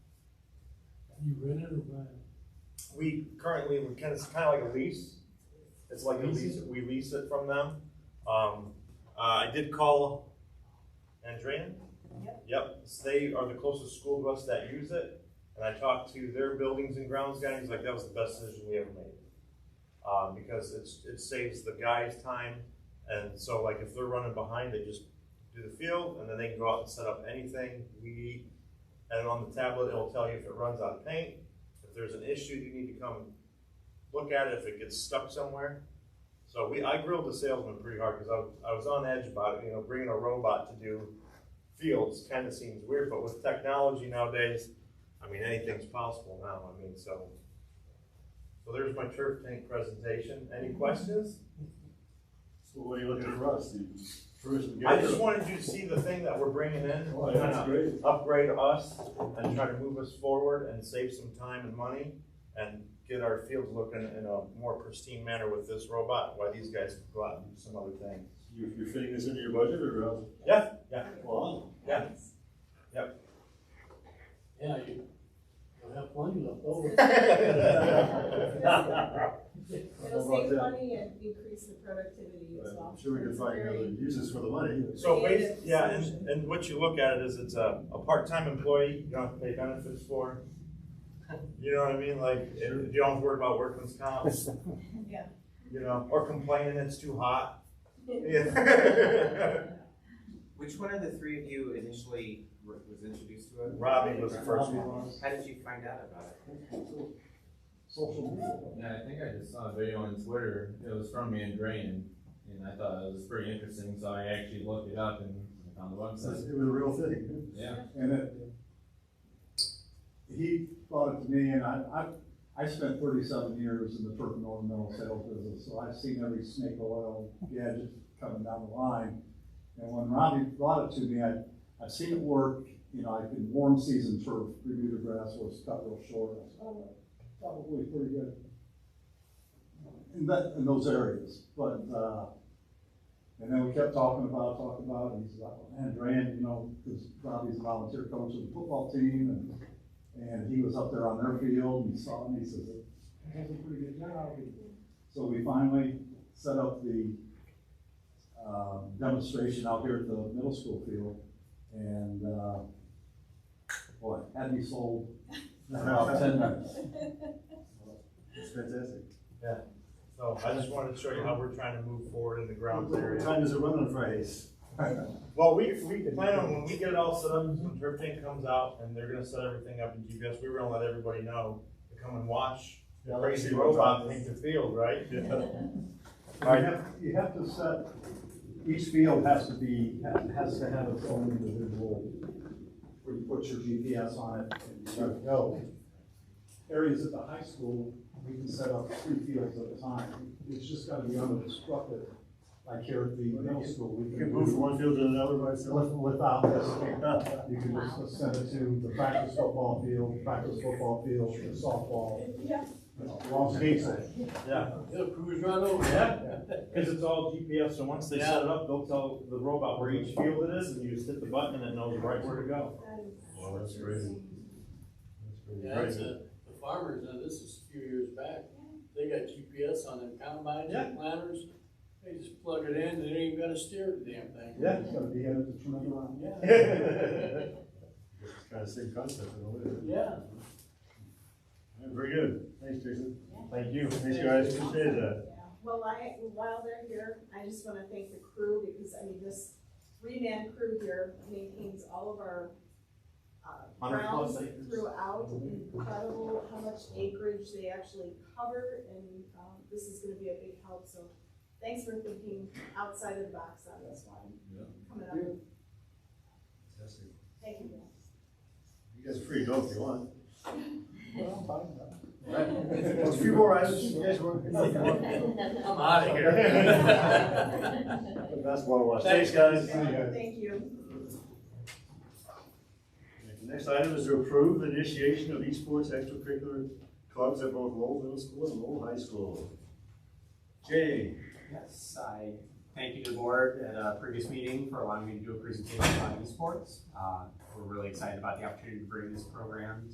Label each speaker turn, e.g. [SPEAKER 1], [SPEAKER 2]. [SPEAKER 1] You rent it or buy it?
[SPEAKER 2] We currently, we kind of, it's kind of like a lease. It's like a lease, we lease it from them. Um, uh, I did call Andrian.
[SPEAKER 3] Yep.
[SPEAKER 2] Yep, so they are the closest school bus that use it. And I talked to their buildings and grounds guy, he's like, that was the best decision we ever made. Um, because it's, it saves the guys time. And so like if they're running behind, they just do the field and then they can go out and set up anything, weed. And on the tablet, it'll tell you if it runs out of paint, if there's an issue, you need to come look at it if it gets stuck somewhere. So we, I grilled the salesman pretty hard because I, was- I was on edge about it, you know, bringing a robot to do fields kind of seems weird, but with technology nowadays, I mean, anything's possible now, I mean, so. So there's my turf tank presentation. Any questions?
[SPEAKER 4] So what are you looking for us, the tourism?
[SPEAKER 2] I just
[SPEAKER 4] gathering?
[SPEAKER 2] wanted you to see the thing that we're bringing in.
[SPEAKER 4] Oh, that's great.
[SPEAKER 2] upgrade us and try to move us forward and save some time and money and get our field looking in a more pristine manner with this robot, while these guys can go out and do some other thing.
[SPEAKER 4] You, you're fitting this into your budget or uh, else?
[SPEAKER 2] Yeah, yeah,
[SPEAKER 4] Wow.
[SPEAKER 2] yeah.
[SPEAKER 1] Yeah, you, you'll have plenty left over.
[SPEAKER 3] It'll
[SPEAKER 4] How about
[SPEAKER 3] save
[SPEAKER 4] that?
[SPEAKER 3] money and increase the productivity as well.
[SPEAKER 4] I'm sure we can find other uses for the money.
[SPEAKER 2] So basi- yeah, and, and what you look at it is it's a, a part-time employee, you don't have to pay benefits for. You know what I mean, like, if you don't have to worry about workman's comp,
[SPEAKER 3] Yeah.
[SPEAKER 2] you know, or complaining it's too hot. Yeah.
[SPEAKER 5] Which one of the three of you initially were- was introduced to it?
[SPEAKER 2] Robbie was the first one.
[SPEAKER 5] How did you find out about it?
[SPEAKER 4] Social media.
[SPEAKER 6] Yeah, I think I just saw a video on Twitter. It was from Mandrain, and I thought it was pretty interesting, so I actually looked it up and I found the
[SPEAKER 4] So
[SPEAKER 6] website.
[SPEAKER 4] It was a real thing.
[SPEAKER 6] Yeah.
[SPEAKER 4] And it, he brought it to me, and I, I, I spent thirty-seven years in the turf and ornamental sales business, so I've seen every snake oil gadget coming down the line. And when Robbie brought it to me, I, I've seen it work, you know, I've been warm season turf, Bermuda grass was cut real short, I said, oh, probably pretty good. In that, in those areas, but, uh, and then we kept talking about, talking about, and he's like, man, Duran, you know, because Robbie's a volunteer coach of the football team, and, and he was up there on their field, and he saw it, and he says, that's a pretty good job. And So we finally set up the, um, demonstration out here at the middle school field, and, uh, boy, had me sold in about ten minutes. It's fantastic.
[SPEAKER 2] So I just wanted to show you how we're trying to move forward in the grounds area.
[SPEAKER 4] time does it run on Fridays?
[SPEAKER 2] Well, we, we plan on, when we get it all set up, when Turf Tank comes out and they're gonna set everything up in GPS, we were gonna let everybody know to come and watch the crazy robot paint the field, right?
[SPEAKER 4] You have, you have to set, each field has to be, has to have its own individual, where you put your GPS on it and you gotta go. Areas at the high school, we can set up three fields at a time. It's just gotta be unobstructed, like here at the middle school. we
[SPEAKER 7] You can move from one field to another by yourself.
[SPEAKER 4] with- Without this, you can just send it to the practice football field, practice football field, the softball,
[SPEAKER 3] Yeah.
[SPEAKER 4] you know, long season.
[SPEAKER 2] Yeah,
[SPEAKER 1] It'll cruise right over.
[SPEAKER 2] cause it's all GPS, so once they set it up, they'll tell the robot where each field it is and you just hit the button and it knows right where to go.
[SPEAKER 4] Well, that's great.
[SPEAKER 1] Yeah, it's a, the farmers, now this is a few years back, they got GPS on them combines and planters. They just plug it in, they ain't even gotta steer the damn thing.
[SPEAKER 4] Yeah, it's gonna be at the tremendous amount.
[SPEAKER 1] Yeah,
[SPEAKER 2] Very
[SPEAKER 7] It's kind of same concept in a way. All
[SPEAKER 1] yeah.
[SPEAKER 7] right, Very good. Thanks, Jason.
[SPEAKER 2] Thank you.
[SPEAKER 7] Thanks, guys. Appreciate that.
[SPEAKER 3] Well, I, while they're here, I just wanna thank the crew, because, I mean, this three-man crew here maintains all of our, uh,
[SPEAKER 2] Hundred plus
[SPEAKER 3] grounds
[SPEAKER 2] acres.
[SPEAKER 3] throughout, incredible how much acreage they actually cover, and, um, this is gonna be a big help, so thanks for thinking outside of the box on this one. Coming up. Thank you, guys.
[SPEAKER 7] You guys are free to go if you want.
[SPEAKER 4] A few more items, you guys want?
[SPEAKER 1] I'm out of
[SPEAKER 7] That's one watch. Thanks, guys.
[SPEAKER 3] Thank you.
[SPEAKER 7] The Next item is to approve the initiation of esports extracurricular clubs at both Lowell Middle School and Lowell High School. Jay,
[SPEAKER 8] Yes, I thank you to the board at a previous meeting for allowing me to do a presentation on esports. Uh, We're really excited about the opportunity to bring this program